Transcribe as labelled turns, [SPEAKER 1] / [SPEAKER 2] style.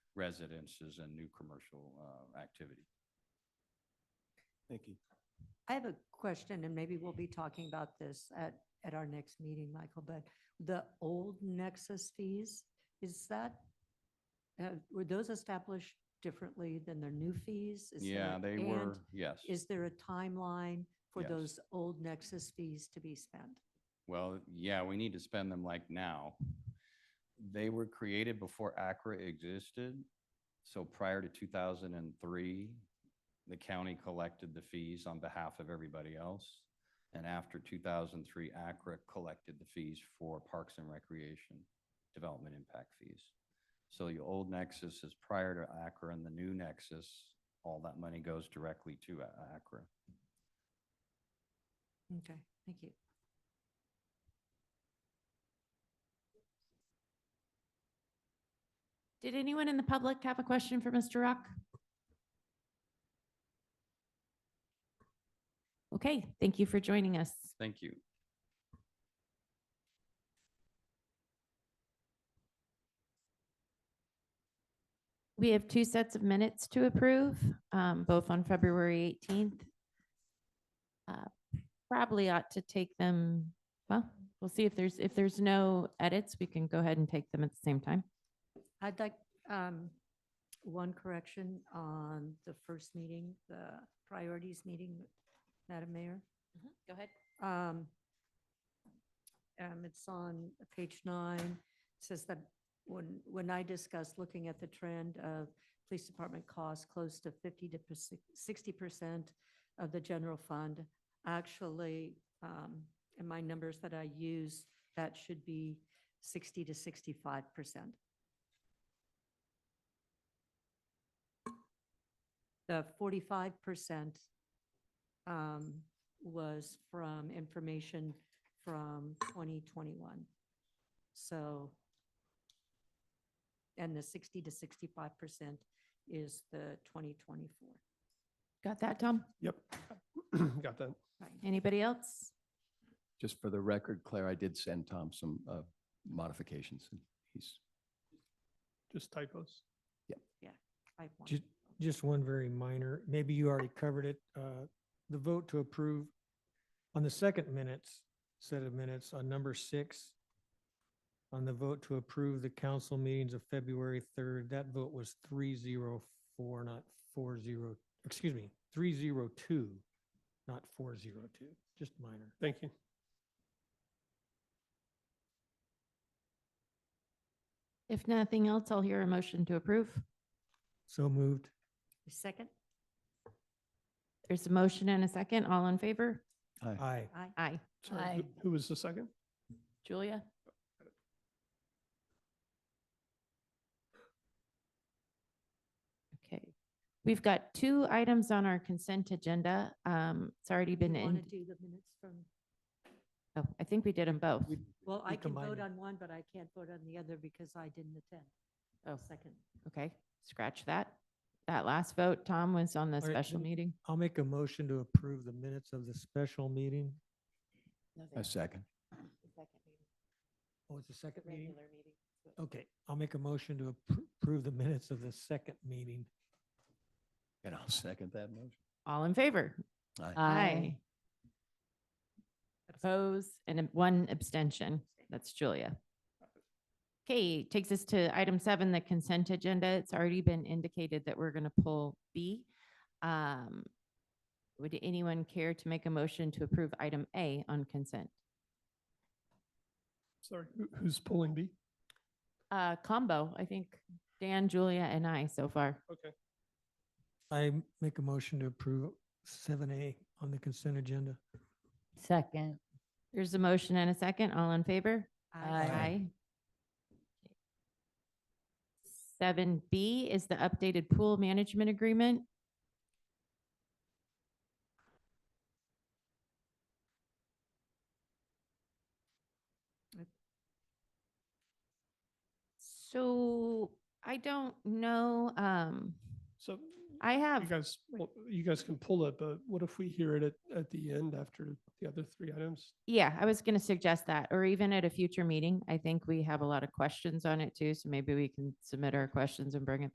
[SPEAKER 1] residences and new commercial uh, activity.
[SPEAKER 2] Thank you.
[SPEAKER 3] I have a question, and maybe we'll be talking about this at, at our next meeting, Michael, but the old Nexus fees, is that, uh, were those established differently than their new fees? Is there-
[SPEAKER 1] Yeah, they
[SPEAKER 3] and
[SPEAKER 1] were, yes.
[SPEAKER 3] Is there a timeline for
[SPEAKER 1] Yes.
[SPEAKER 3] those old Nexus fees to be spent?
[SPEAKER 1] Well, yeah, we need to spend them like now. They were created before ACRA existed. So prior to two thousand and three, the county collected the fees on behalf of everybody else. And after two thousand and three, ACRA collected the fees for parks and recreation development impact fees. So the old nexus is prior to ACRA and the new nexus, all that money goes directly to A- ACRA.
[SPEAKER 3] Okay, thank you.
[SPEAKER 4] Did anyone in the public have a question for Mr. Rock? Okay, thank you for joining us.
[SPEAKER 1] Thank you.
[SPEAKER 4] We have two sets of minutes to approve, um, both on February 18th. Uh, Probably ought to take them, well, we'll see if there's, if there's no edits, we can go ahead and take them at the same time.
[SPEAKER 3] I'd like um, one correction on the first meeting, the priorities meeting, Madam Mayor.
[SPEAKER 4] Mm-hmm, Go ahead.
[SPEAKER 3] Um, um, it's on page nine, says that when, when I discussed looking at the trend of police department costs close to fifty to sixty percent of the general fund, actually, um, in my numbers that I use, that should be sixty to sixty-five percent. The forty-five percent, um, was from information from 2021. So, and the 60 to 65% is the 2024.
[SPEAKER 4] Got that, Tom?
[SPEAKER 2] Yep. Got that.
[SPEAKER 3] Right.
[SPEAKER 4] Anybody else?
[SPEAKER 5] Just for the record, Claire, I did send Tom some uh, modifications. and He's,
[SPEAKER 2] Just typos.
[SPEAKER 3] Type one.
[SPEAKER 6] Ju- Just one very minor, maybe you already covered it, uh, the vote to approve on the second minutes, set of minutes on number six, on the vote to approve the council meetings of February third, that vote was three zero four, not four zero, excuse me, three zero two, not four zero two, just minor.
[SPEAKER 2] Thank you.
[SPEAKER 4] If nothing else, I'll hear a motion to approve.
[SPEAKER 6] So moved.
[SPEAKER 3] Second?
[SPEAKER 4] There's a motion and a second. All in favor?
[SPEAKER 6] Aye.
[SPEAKER 3] Aye.
[SPEAKER 4] Aye.
[SPEAKER 2] Sorry, who- Who was the second?
[SPEAKER 4] Julia? Okay, we've got two items on our consent agenda. Um, it's already been
[SPEAKER 3] Want to
[SPEAKER 4] in,
[SPEAKER 3] do the minutes from,
[SPEAKER 4] oh, I think we did them both.
[SPEAKER 6] We-
[SPEAKER 3] well, I can
[SPEAKER 6] combine
[SPEAKER 3] vote
[SPEAKER 6] them.
[SPEAKER 3] on one, but I can't vote on the other because I didn't attend.
[SPEAKER 4] Oh,
[SPEAKER 3] Second.
[SPEAKER 4] okay, scratch that. That last vote, Tom, was on the
[SPEAKER 6] All right,
[SPEAKER 4] special
[SPEAKER 6] then-
[SPEAKER 4] meeting.
[SPEAKER 6] I'll make a motion to approve the minutes of the special meeting.
[SPEAKER 5] a second.
[SPEAKER 6] Oh, it's the second meeting? Okay, I'll make a motion to appro- approve the minutes of the second meeting.
[SPEAKER 5] And I'll second that motion.
[SPEAKER 4] All in favor?
[SPEAKER 5] Aye.
[SPEAKER 4] Aye. Oppose and ab- one abstention. That's Julia. Okay, takes us to item seven, the consent agenda. It's already been indicated that we're going to pull B. Um, Would anyone care to make a motion to approve item A on consent?
[SPEAKER 2] Sorry, who- who's pulling B?
[SPEAKER 4] Uh, Combo, I think Dan, Julia, and I so far.
[SPEAKER 2] Okay.
[SPEAKER 6] I m- make a motion to approve seven A on the consent agenda.
[SPEAKER 7] Second.
[SPEAKER 4] There's a motion and a second. All in favor?
[SPEAKER 5] Aye.
[SPEAKER 4] Seven B is the updated pool management agreement. So I don't know, um,
[SPEAKER 2] So
[SPEAKER 4] I
[SPEAKER 2] you
[SPEAKER 4] have,
[SPEAKER 2] guys, well, you guys can pull it, but what if we hear it at, at the end after the other three items?
[SPEAKER 4] yeah, I was gonna suggest that, or even at a future meeting. I think we have a lot of questions on it too, so maybe we can submit our questions and bring it